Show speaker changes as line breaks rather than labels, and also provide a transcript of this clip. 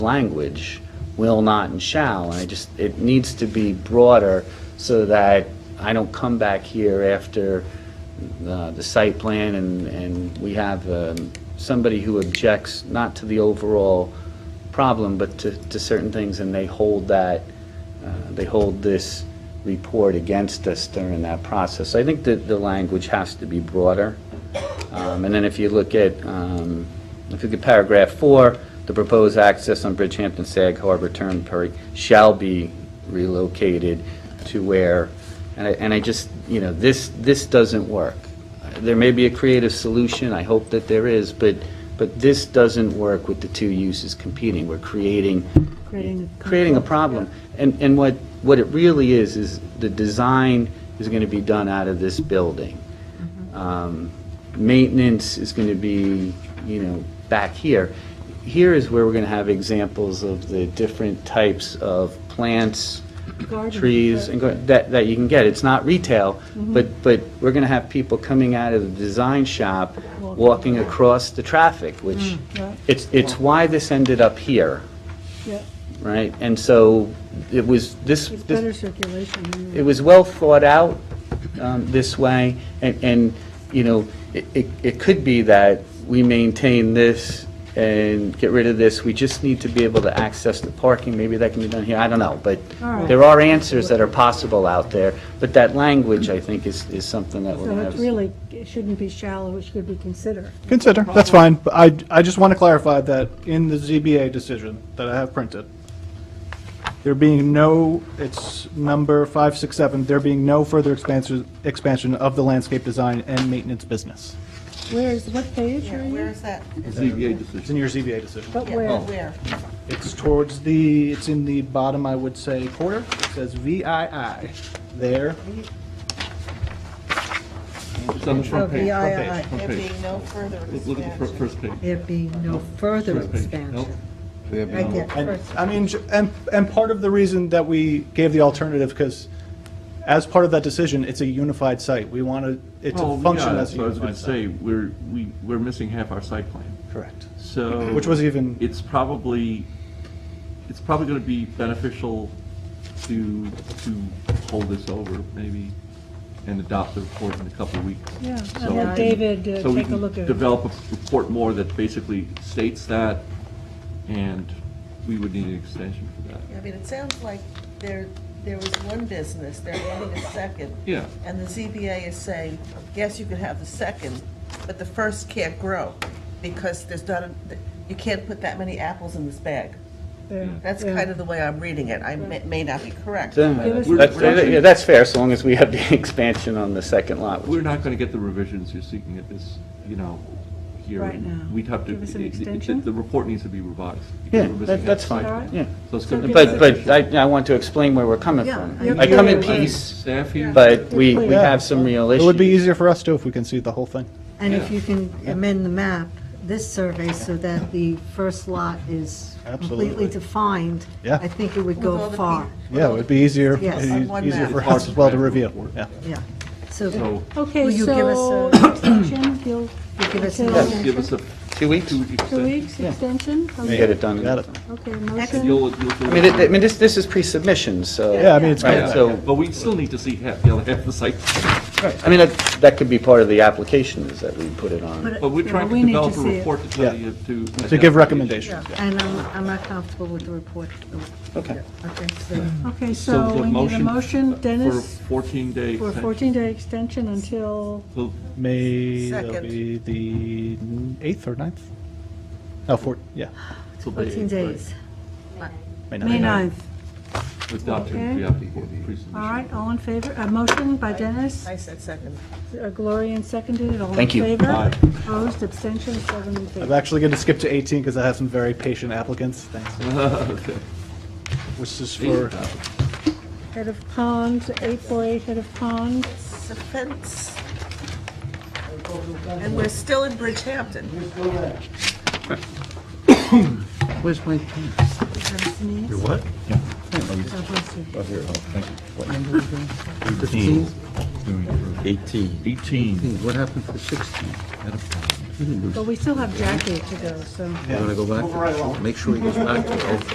language, will not and shall, and I just, it needs to be broader so that I don't come back here after uh, the site plan and, and we have um, somebody who objects not to the overall problem, but to, to certain things, and they hold that, uh, they hold this report against us during that process. So I think that the language has to be broader. Um, And then if you look at, um, if you look at paragraph four, the proposed access on Bridgehampton Sag Harbor Turnpike shall be relocated to where, and I, and I just, you know, this, this doesn't work. There may be a creative solution, I hope that there is, but, but this doesn't work with the two uses competing. We're creating
Creating a
creating a problem. And, and what, what it really is, is the design is going to be done out of this building.
Mm-hmm.
Um, Maintenance is going to be, you know, back here. Here is where we're going to have examples of the different types of plants,
Garden.
trees, and gar- that, that you can get. It's not retail,
Mm-hmm.
but, but we're going to have people coming out of the design shop,
Walking. Mm,
walking across the traffic, which,
yeah.
it's, it's why this ended up here
Yeah,
right? And so it was, this,
it's better
this-
circulation. than
it
you-
was well thought out um, this way, and, and, you know, it- it, it could be that we maintain this and get rid of this, we just need to be able to access the parking, maybe that can be done here, I don't know, but
All right.
there are answers that are possible out there, but that language, I think, is, is something that we're
So
gonna have.
it really it shouldn't be shallow, it should be considered.
Consider, that's fine, but I, I just want to clarify that in the ZBA decision that I have printed, there being no, it's number 567, there being no further expansion, expansion of the landscape design and maintenance business.
Where is, what page are
Yeah,
you?
where is that?
ZBA
It's in
decision.
your ZBA decision.
But
Yeah,
Oh.
where?
Where?
It's towards the, it's in the bottom, I would say, quarter, it says VII, there,
It's on the front page.
VII.
front
There
Front page.
being no further
Look- Look at the fir-
expansion.
first page.
There be no further
First page. Nope.
expansion.
There be
Right
no-
there.
And,
First.
I mean, j- and, and part of the reason that we gave the alternative, because as part of that decision, it's a unified site. We want to, it
Well,
to
yeah,
function
that's
as a
what I was going
unified
to
site.
say, we're, we, we're missing half our site plan.
Correct.
So.
Which was even-
It's probably, it's probably going to be beneficial to, to hold this over maybe and adopt the report in a couple of weeks.
Yeah, and
So
let
we can-
David, uh,
so we
take a
can
look at it.
Develop a report more that basically states that and we would need an extension for that.
I mean, it sounds like there, there was one business, they're adding a second.
Yeah.
And the ZBA is saying, yes, you can have the second, but the first can't grow because there's not, a- you can't put that many apples in this bag.
There.
That's
Yeah.
kind of the way I'm reading it. I may may not be correct.
uh, That's,
We're-
that's- yeah, that's fair, so long as we have the expansion on the second lot. which-
We're not going to get the revisions you're seeking at this, you know, here.
Right now.
We'd have to.
Give us an
it- it- the-
extension?
The report needs to be revised.
Yeah,
because we're missing
that-
half
that's
the
fine,
site plan.
yeah.
So it's going to.
But, but I, I want to explain where we're coming
Yeah,
from.
you're-
I come in
you're right.
peace,
Staff here.
but we, we have some real
Oh, It
issues.
would be easier for us too if we can see the whole thing.
And if
Yeah.
you can amend the map, this survey, so that the first lot is
Absolutely.
completely defined,
Yeah.
I think it would
With all
go
the
far.
pe-
Yeah, it would be easier,
Yes.
e-
On one
easier
map.
for us as well to review.
Report.
Yeah.
Yeah. So
So
Okay,
Will you give us
so
a-
extension, you'll
give us
Okay.
an
Yes.
give us a
Two weeks,
two-week
two
extension.
weeks extension?
we get it done.
Got it.
Okay,
And
motion,
you'll, you'll.
I mean, it- I mean, this, this is pre-submission, so.
Yeah, I mean, it's
Right,
coming back.
so-
But we still need to see half, the other half of the site.
I mean, that, that could be part of the application, is that we put it on.
But-
But we're
Yeah,
trying
we
to
need to
develop a
see it.
report to tell
Yeah.
you to.
To give recommendations. yeah.
And I'm, I'm not comfortable with the report.
Okay.
Okay, so
okay, so
the
we need a motion, Dennis,
For a 14-day
for a
extension.
14-day extension until,
Well,
May, that'll
Second.
be the 8th or 9th? No, 4, yeah.
this will be
14
right,
days.
May 9th.
Adopted,
Okay.
yeah, before pre-submission.
All right, all in favor, a motion by Dennis,
I said second.
uh, Gloria and seconded, all in
Thank you.
favor?
Aye.
Opposed, abstentions, seven in favor.
I'm actually going to skip to 18 because I have some very patient applicants, thanks.
Okay.
Which is for,
Head of Pond, 848 Head of Pond.
It's a fence. And we're still in Bridgehampton.
Where's my
What?
God bless you.
Oh, here, oh, thank you. What? Eighteen. Doing it for-
18.
What happened to sixteen? Had a problem.
We didn't do-
But we still have Jackie to go, so.
We're gonna go back, to- make sure he goes back to